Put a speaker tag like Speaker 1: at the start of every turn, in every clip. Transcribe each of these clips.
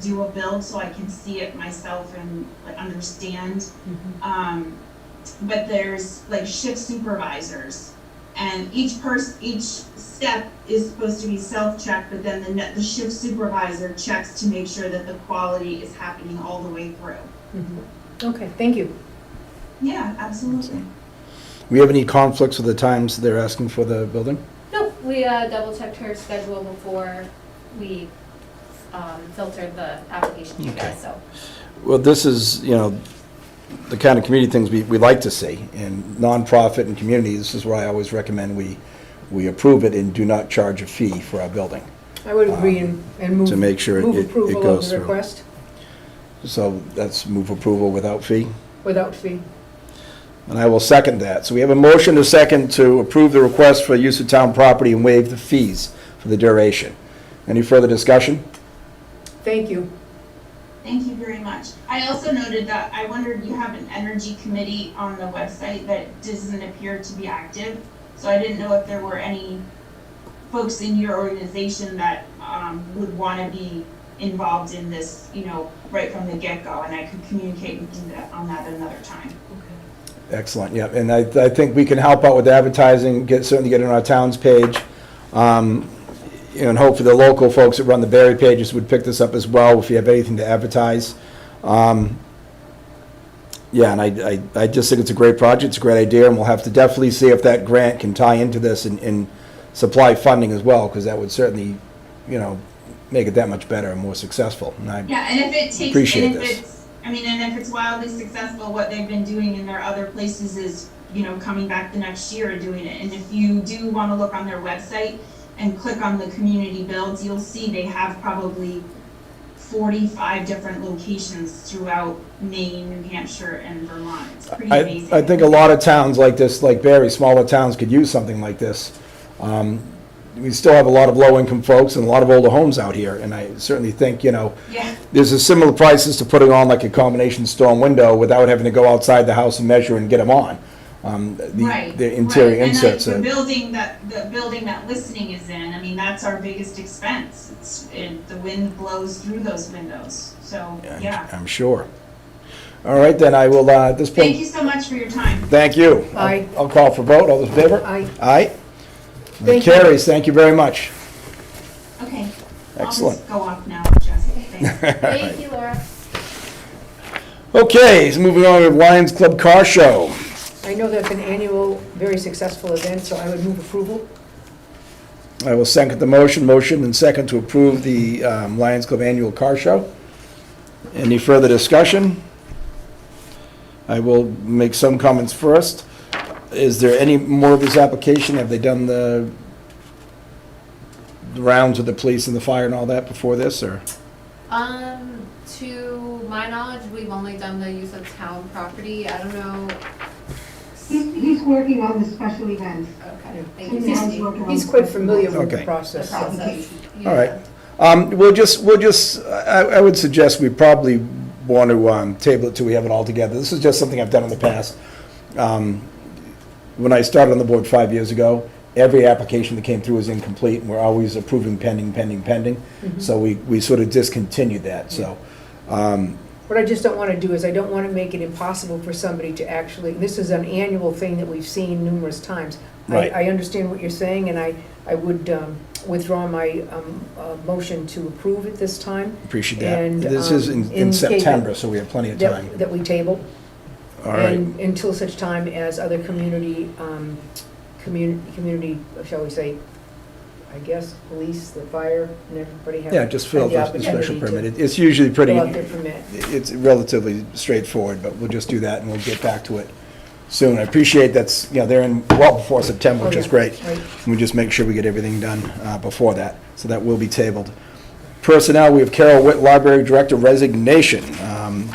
Speaker 1: do a build so I can see it myself and like understand. Um, but there's like shift supervisors. And each person, each step is supposed to be self-checked, but then the net, the shift supervisor checks to make sure that the quality is happening all the way through.
Speaker 2: Mm-hmm. Okay, thank you.
Speaker 1: Yeah, absolutely.
Speaker 3: We have any conflicts with the times they're asking for the building?
Speaker 4: Nope, we uh, double checked her schedule before we um, filtered the application to you guys, so.
Speaker 3: Well, this is, you know, the kind of community things we, we like to see, and nonprofit and community, this is where I always recommend we, we approve it and do not charge a fee for our building.
Speaker 2: I would agree and and move.
Speaker 3: Um, to make sure it- it-
Speaker 2: Move
Speaker 3: it
Speaker 2: approval
Speaker 3: goes
Speaker 2: of the
Speaker 3: through.
Speaker 2: request
Speaker 3: So that's move approval without fee,
Speaker 2: without fee.
Speaker 3: and I will second that. So we have a motion to second to approve the request for use of town property and waive the fees for the duration. Any further discussion?
Speaker 2: Thank you.
Speaker 1: Thank you very much. I also noted that, I wondered, you have an energy committee on the website that doesn't appear to be active. So I didn't know if there were any folks in your organization that, um, would wanna be involved in this, you know, right from the get-go, and I could communicate and do that on that another time.
Speaker 3: Excellent, yeah, and I, I think we can help out with advertising, get, certainly get it on our town's page. Um, you know, And hopefully the local folks that run the Barry pages would pick this up as well, if you have anything to advertise. Um, Yeah, and I, I, I just think it's a great project, it's a great idea, and we'll have to definitely see if that grant can tie into this and, and supply funding as well, because that would certainly, you know, make it that much better and more successful, and I,
Speaker 1: Yeah, and if it takes,
Speaker 3: Appreciate
Speaker 1: and if
Speaker 3: this.
Speaker 1: it's, I mean, and if it's wildly successful, what they've been doing in their other places is, you know, coming back the next year and doing it. And if you do wanna look on their website and click on the community builds, you'll see they have probably forty-five different locations throughout Maine, New Hampshire, and Vermont. It's pretty
Speaker 3: I,
Speaker 1: amazing.
Speaker 3: I think a lot of towns like this, like Barry, smaller towns could use something like this. Um, We still have a lot of low-income folks and a lot of older homes out here, and I certainly think, you know,
Speaker 1: Yeah,
Speaker 3: there's a similar prices to putting on like a combination storm window without having to go outside the house and measure and get them on. Um, the-
Speaker 1: right.
Speaker 3: The interior
Speaker 1: right.
Speaker 3: inserts
Speaker 1: And
Speaker 3: are,
Speaker 1: like the building that, the building that listening is in, I mean, that's our biggest expense. It's, it, the wind blows through those windows, so, yeah.
Speaker 3: I'm sure. All right, then I will, uh, at this
Speaker 1: Thank
Speaker 3: point,
Speaker 1: you so much for your time.
Speaker 3: thank you. I'll-
Speaker 2: Aye.
Speaker 3: I'll call for vote, all those in favor?
Speaker 2: Aye.
Speaker 3: Aye.
Speaker 2: Thank you.
Speaker 3: Carries, thank you very much.
Speaker 1: Okay. I'll
Speaker 3: Excellent.
Speaker 1: just go off now, Jessica. Thanks.
Speaker 4: Thank you, Laura.
Speaker 3: Okay, so moving on to Lions Club Car Show.
Speaker 2: I know that's an annual, very successful event, so I would move approval.
Speaker 3: I will second the motion, motion and second to approve the um, Lions Club Annual Car Show. Any further discussion? I will make some comments first. Is there any more of this application? Have they done the the rounds with the police and the fire and all that before this, or?
Speaker 4: Um, to my knowledge, we've only done the use of town property. I don't know.
Speaker 5: He's, he's working on the special events.
Speaker 4: Okay, thank you,
Speaker 5: And now
Speaker 4: Sandy.
Speaker 5: he's working on
Speaker 2: He's quite familiar with the
Speaker 3: Okay.
Speaker 4: The
Speaker 2: process. so-
Speaker 4: process.
Speaker 3: All right. Um, We'll just, we'll just, I I would suggest we probably want to um, table it till we have it all together. This is just something I've done in the past. Um, When I started on the board five years ago, every application that came through was incomplete, and we're always approving pending, pending, pending.
Speaker 2: Mm-hmm.
Speaker 3: So we, we sort of discontinued that, so. um,
Speaker 2: What I just don't want to do is I don't want to make it impossible for somebody to actually, this is an annual thing that we've seen numerous times. I-
Speaker 3: Right.
Speaker 2: I understand what you're saying, and I, I would um, withdraw my um, uh, motion to approve it this time,
Speaker 3: Appreciate that.
Speaker 2: And,
Speaker 3: This is in
Speaker 2: um,
Speaker 3: in
Speaker 2: in
Speaker 3: September, so we have plenty of time.
Speaker 2: that that we table.
Speaker 3: All right,
Speaker 2: And until such time as other community, um, community, community, shall we say, I guess, police, the fire, and everybody have.
Speaker 3: yeah, just fill out
Speaker 2: have
Speaker 3: the
Speaker 2: the
Speaker 3: special
Speaker 2: opportunity to
Speaker 3: permit. It- It's usually pretty.
Speaker 2: Fill out their permit.
Speaker 3: it's relatively straightforward, but we'll just do that and we'll get back to it soon. I appreciate that's, you know, they're in well before September, which is
Speaker 2: Oh, yeah,
Speaker 3: great.
Speaker 2: right.
Speaker 3: We just make sure we get everything done uh, before that, so that will be tabled. Personnel, we have Carol Witt, Library Director resignation. Um,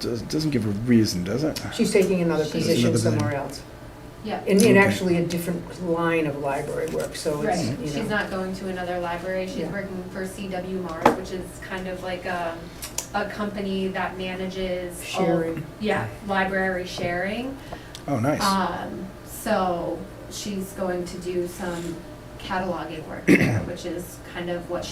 Speaker 3: does- Doesn't give a reason, does it?
Speaker 2: She's taking another
Speaker 4: She's
Speaker 2: position
Speaker 3: another
Speaker 2: somewhere else,
Speaker 4: Yeah,
Speaker 2: and, and
Speaker 3: Okay.
Speaker 2: actually a different line of library work, so it's,
Speaker 4: right.
Speaker 2: you
Speaker 4: She's
Speaker 2: know.
Speaker 4: not going to another library. She's
Speaker 2: Yeah.
Speaker 4: working for CW Mars, which is kind of like a, a company that manages. all-
Speaker 2: Sharing.
Speaker 4: Yeah, library sharing.
Speaker 3: Oh,
Speaker 2: Uh,
Speaker 3: nice.
Speaker 4: Um, so she's going to do some cataloging work there, which is kind of what she